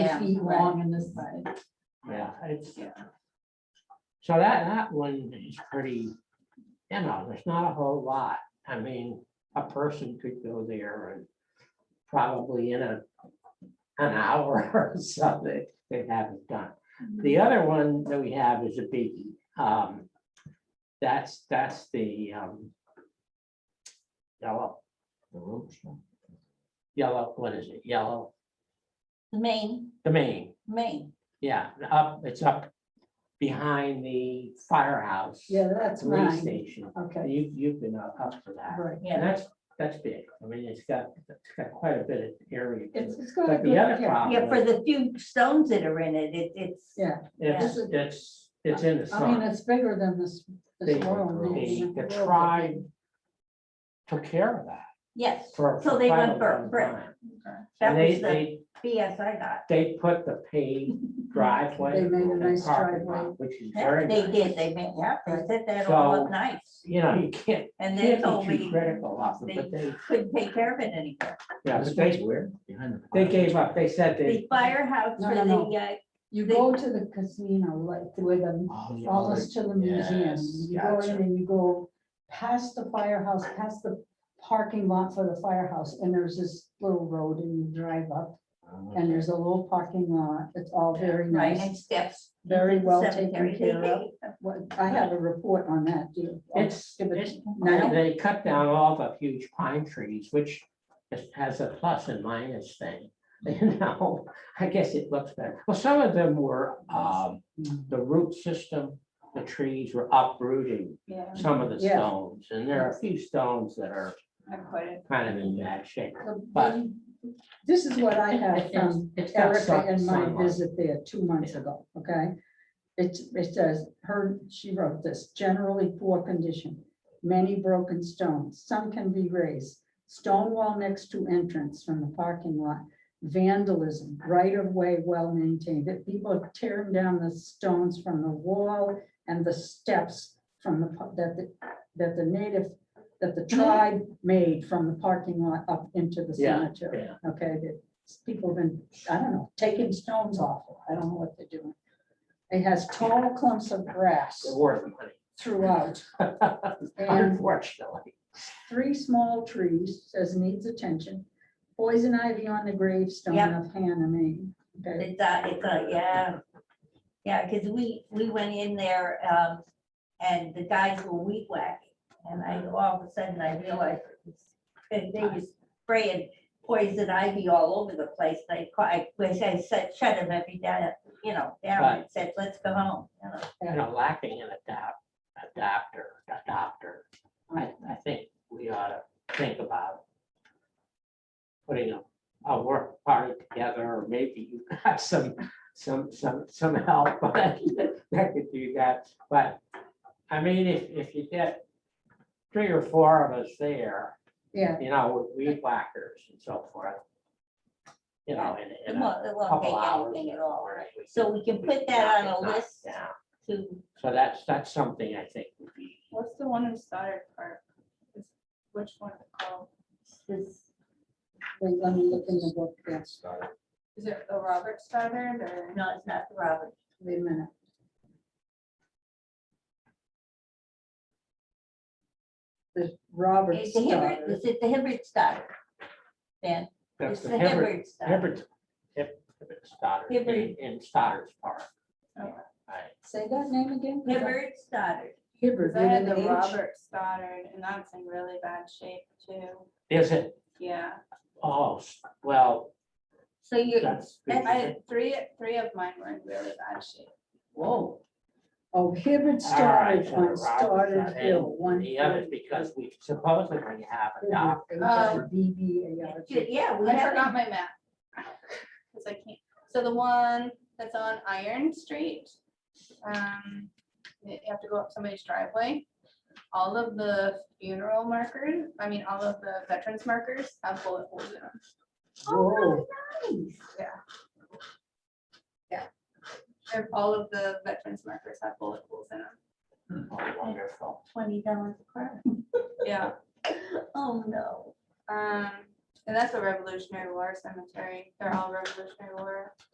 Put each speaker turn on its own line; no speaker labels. Yeah,
feet
right.
long on this side.
Yeah, it's.
Yeah.
So that, that one is pretty, you know, there's not a whole lot. I mean, a person could go there and probably in a, an hour or something, they'd have it done. The other one that we have is a biggie. Um, that's, that's the, um, yellow. Yellow, what is it? Yellow,
Main,
the main.
main.
Yeah, up, it's up behind the firehouse.
Yeah, that's
Police
mine.
station.
Okay,
You, you've been up up for that.
right.
And that's, that's big. I mean, it's got, it's got quite a bit of area. to
It's,
it.
it's
But
going.
the other
Yeah,
problem,
for
is
the few stones that are in it, it, it's,
Yeah,
it's,
yeah.
it's, it's in the
I mean,
sun.
it's bigger than this. this
Big
world.
room. The- the
World.
tribe. Took care of that
yes,
for.
So
for
they
quite
went
a
for
long
brick.
time.
that
And they,
was the
they,
BS I got.
they put the paved driveway.
They made a
and
nice
parking lot,
driveway.
Which is
Yeah,
very
They
nice.
did, they made, yeah, they said that all
So-
up nice,
You know, you can't,
and they
can't
told
be too
me
critical of them,
they-
but they,
couldn't take care of it anymore.
yeah, but they,
where? Behind the.
they gave up, they said
The
they.
firehouse
No,
for
no,
the,
no.
uh,
You
They-
go to the casino, like the way the, almost to the museum,
Oh, Yes,
you go in
gotcha.
and you go past the firehouse, past the parking lot for the firehouse, and there's this little road and you drive up,
Oh,
and there's a little parking lot, it's all very
right,
nice.
and steps.
Very
The
well taken
cemetery, they
care of.
gave them.
What, I have a report on that, too. I'll
It's,
give it
it's,
now.
they they cut down all the huge pine trees, which is- has a plus and minus thing. You know, I guess it looks better. Well, some of them were, um, the root system, the trees were uprooting
Yeah,
some of the
Yes.
stones. And there are a few stones that are
not quite.
kind of in bad shape.
the-
but-
This is what I have
It's-
from
it's got
Erica
sun-
in my
sunlight.
visit there two months
Yeah.
ago, okay? It, it says, her, she wrote this, generally poor condition, many broken stones, some can be raised. Stone wall next to entrance from the parking lot, vandalism, right of way well maintained, that people are tearing down the stones from the wall and the steps from the, pu- that the, that the native, that the tribe made from the parking lot up into the
Yeah,
cemetery,
yeah.
okay? That people have been, I don't know, taking stones off, it. I don't know what they're doing. It has tall clumps of grass
They're worth money,
throughout and
unfortunately.
three small trees, says needs attention. Poison ivy on the gravestone
Yeah.
of Hannah Main. Okay,
It's a, it's a, yeah. Yeah, because we, we went in there, um, and the guys were weed whacking. And I, all of a sudden, I realized, it was- and they was spraying poison ivy all over the place. And I caught, I wish I said, shut them every day, you know, down and said, let's go home. you know.
you know, lacking an adapt, adapter, adopter. I, I think we ought to think about putting a, a work party together, or maybe you got some, some, some, some help that could do that. But, I mean, if, if you get three or four of us there,
Yeah,
you know, with weed whackers and so forth, you know, in,
It
in a
won't, it won't
couple
take
hours.
anything at all.
or if
So we can put that on a
knock it
list
down.
to,
So that's, that's something I think would be,
What's the one in Stoddard Park? Is- Which one is it called?
this,
wait, let me look in the book, yeah,
Is it the Robert Stoddard or?
no, it's not the Robert.
wait a minute. The Robert
It's the Hibbert,
Stoddard.
is it the Hibbert Stoddard? Then,
that's
it's
the
the
Hibbert,
Hibbert Stoddard.
Hibbert, Hib- Hibbert Stoddard, in,
Hibbert.
in Stoddard's Park.
Okay.
Right.
Say that name again?
Hibbert Stoddard.
Hibbert.
Because I had
with
the
an H?
Robert Stoddard and that's in really bad shape too.
Is it,
Yeah,
oh, s- well,
So you,
that's.
that's-
I had three, three of mine were in really bad shape.
Whoa.
Oh, Hibbert
All
started
right, so
on
Robert's
Stoddard
not in.
Hill, one. Mm-hmm.
The other, because we supposedly have a doc,
Oh.
DBARG.
yeah, we
I forgot
haven't,
my map. Cause I can't, so the one that's on Iron Street, um, you have to go up somebody's driveway. All of the funeral markers, I mean, all of the veterans markers have bullet holes in them.
Oh,
Whoa,
And all of the veterans markers have bullet holes in them.
oh, wonderful.
twenty dollars a car.
Yeah,
Oh, no.
um, and that's a Revolutionary War cemetery. They're all Revolutionary War